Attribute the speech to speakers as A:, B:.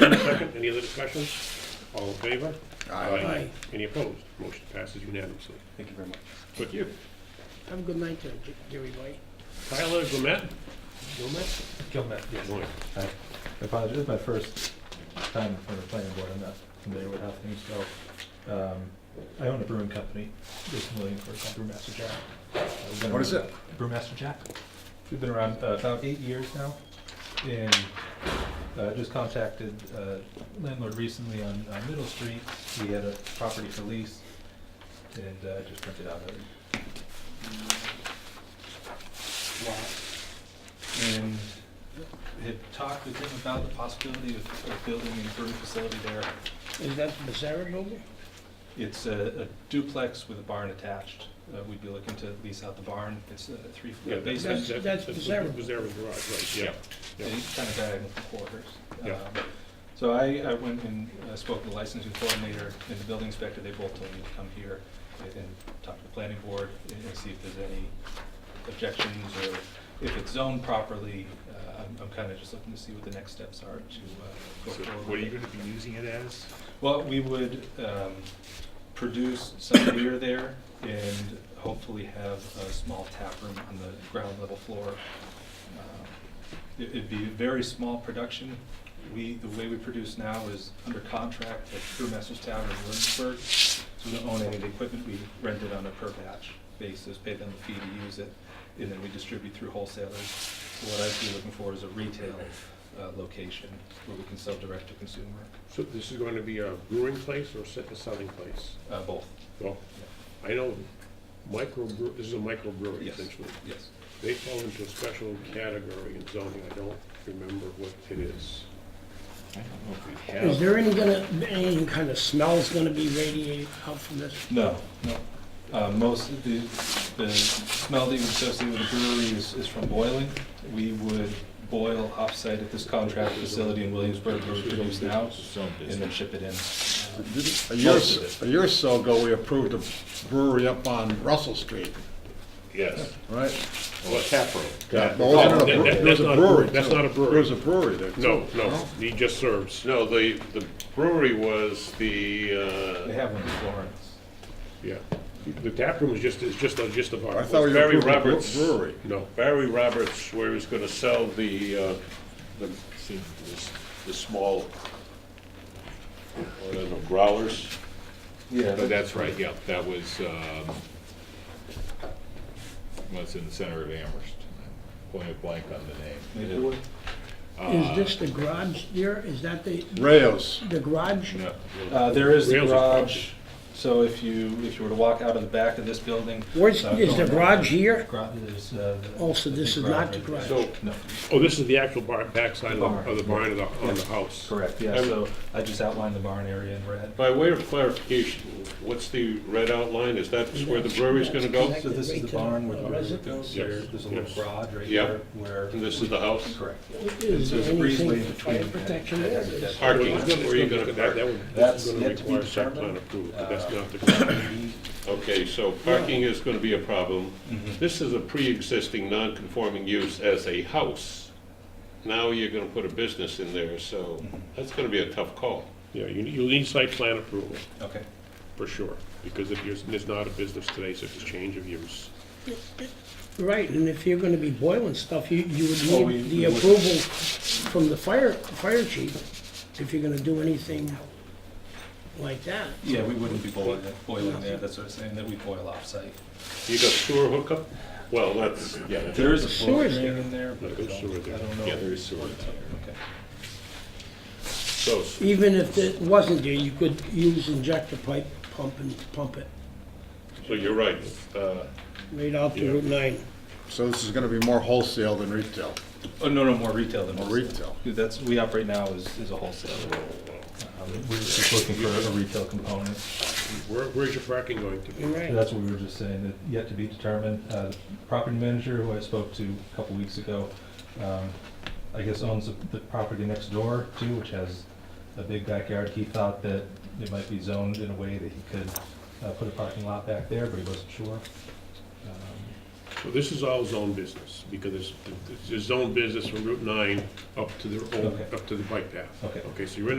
A: motion and a second. Any other discussions? All in favor? Any opposed? Motion passes unanimously.
B: Thank you very much.
A: Thank you.
C: Have a good night, there, Ge- Jerry White.
A: Tyler Gomet? Gomet?
B: Gilmet.
A: Gomet.
B: I apologize, this is my first time in front of the planning board, I'm not familiar with how things go. Um, I own a brewing company, recently for called Brewmaster Jack. I've been
D: What is
B: around-
D: it?
B: Brewmaster Jack. We've been around uh, about eight years now, and uh, just contacted uh, landlord recently on on Middle Street. He had a property for lease, and uh, just rented out of it. and had talked with him about the possibility of, of building a brewing facility there.
C: Is that the Sarah building?
B: It's a, a duplex with a barn attached. Uh, we'd be looking to lease out the barn. It's a three
A: Yeah,
B: floor
A: that's,
B: basement.
A: that's,
C: That's-
A: that's
C: that's
A: Bizarro
C: Pizarro.
A: Garage, right, yeah.
B: Yep. They kind of diagonal for quarters.
A: Yeah.
B: Um, So I, I went and uh, spoke to the licensing coordinator and the building inspector. They both told me to come here and and talk to the planning board and and see if there's any objections or if it's zoned properly. Uh, I'm, I'm kind of just looking to see what the next steps are to uh, go
E: So what
B: forward.
E: are
B: with
E: you
B: it.
E: gonna be using it as?
B: Well, we would um, produce some beer there and hopefully have a small tap room on the ground level floor. Um, it- It'd be a very small production. We, the way we produce now is under contract at Brewmaster's Tavern in Williamsburg. So we don't own any of the equipment, we rent it on a per batch basis, pay them a fee to use it, and then we distribute through wholesalers. So What I'd be looking for is a retail uh, location where we can sell direct to consumer,
A: So this is going to be a brewing place or se- a selling place?
B: uh, both.
A: Well, I know micro, this is a microbrewery
B: Yes.
A: essentially.
B: Yes.
A: They fall into a special category in zoning, I don't remember what it is.
E: I don't know if we
C: Is
E: have,
C: there any gonna, any kind of smells gonna be radiated out from this?
B: No, no. Uh, most of the, the smell that you associate with a brewery is, is from boiling. We would boil offsite at this contract facility in Williamsburg where we produce now
E: some
B: and then ship it in.
D: A year,
E: Most of
D: s- a year or so ago, we approved a brewery up on Russell Street,
E: yes,
D: right?
E: or tap room.
D: Well, it wasn't a
A: that-
D: bre-
A: that- that's
D: it was a
A: not a
D: brewery,
A: brewery. That's
D: too.
A: not a brewery.
D: There was a brewery there, too.
A: No, no, he just serves,
F: No, the, the brewery was the,
B: They
F: uh,
B: have one in Florence.
A: yeah. The tap room is just, is just, a- just a bar.
D: I thought we
F: Barry
D: approved a bre-
F: Roberts.
D: brewery.
A: No,
F: Barry Roberts, where he was gonna sell the, uh, the, the- the small, I don't know, growlers.
B: Yeah.
E: But that's right, yep, that was, um, was in the center of Amherst. Point blank on the name.
B: Maplewood?
C: Is this the garage there? Is that the,
D: Rayos.
C: the garage?
E: No,
B: Uh, there is the
A: Rails is
B: garage, so if you, if you were to walk out of the back of this building.
C: Where's,
B: uh,
C: is the
B: going-
C: garage here?
B: Garage is, uh. the-
C: Oh, so this is not the
B: right there.
A: so,
B: No,
A: oh, this is the actual bar, backside of the- of the barn of the, on the
B: Yeah.
A: house.
B: correct, yeah, so I just outlined the barn area in red.
F: By way of clarification, what's the red outline? Is that where the brewery's gonna go?
B: So this is the barn where the
C: Right
B: brewery
C: to the
B: goes,
A: resident.
B: there- there's a little
A: Yes.
B: garage right
F: Yep.
B: there where.
F: And this is the house?
B: Correct.
C: Is
B: So there's
C: there
B: a breezeway
C: anything
B: in
C: for fire
B: between.
C: protection
B: that
C: there?
B: has a dead-
F: Park. Parking,
A: It's gonna- it's
F: where you
A: gonna-
F: gonna
A: that- that would- this is
B: That's
A: gonna
B: yet to be
A: require site plan
B: determined.
A: approval, but that's
B: Uh,
A: not the-
F: Okay, so parking is gonna be a problem. This is a pre-existing non-conforming use as a house. Now you're gonna put a business in there, so that's gonna be a tough call.
A: Yeah, you, you need site plan approval,
B: Okay.
A: for sure, because if you're, it's not a business today, so it's a change of use.
C: Right, and if you're gonna be boiling stuff, you, you
B: Oh,
C: would
B: we-
C: need
B: we
C: the
B: would.
C: approval from the fire, fire chief if you're gonna do anything like that.
B: Yeah, we wouldn't be boiling, it- boiling there, that's what I'm saying, that we boil offsite.
F: You got sewer hookup? Well, that's, yeah, that's-
B: There is a
C: sewer
B: sewer
C: there.
B: drain in there, but I
A: There's
B: don't,
A: sewer there.
B: I don't know.
F: yeah, there is sewer.
B: Okay.
F: So,
C: Even if it wasn't there, you could use injector pipe, pump and pump it
F: so you're right. Uh,
C: right out to
F: Yeah.
C: Route nine.
D: So this is gonna be more wholesale than retail.
B: Oh, no, no, more retail than
D: More
B: wholesale.
D: retail.
B: Dude, That's, we operate now as, as a wholesaler. Um, We were just looking for a retail component.
A: Where, where's your parking going to be?
C: You're
B: So
C: right.
B: That's what we were just saying, that yet to be determined. Uh, the Property manager, who I spoke to a couple weeks ago, um, I guess owns the- the property next door too, which has a big backyard. He thought that it might be zoned in a way that he could uh, put a parking lot back there, but he wasn't sure. Um,
A: So this is all zone business, because it's, it's zone business from Route nine up to the, old-
B: Okay.
A: up to the bike path.
B: Okay.
A: Okay, so you're in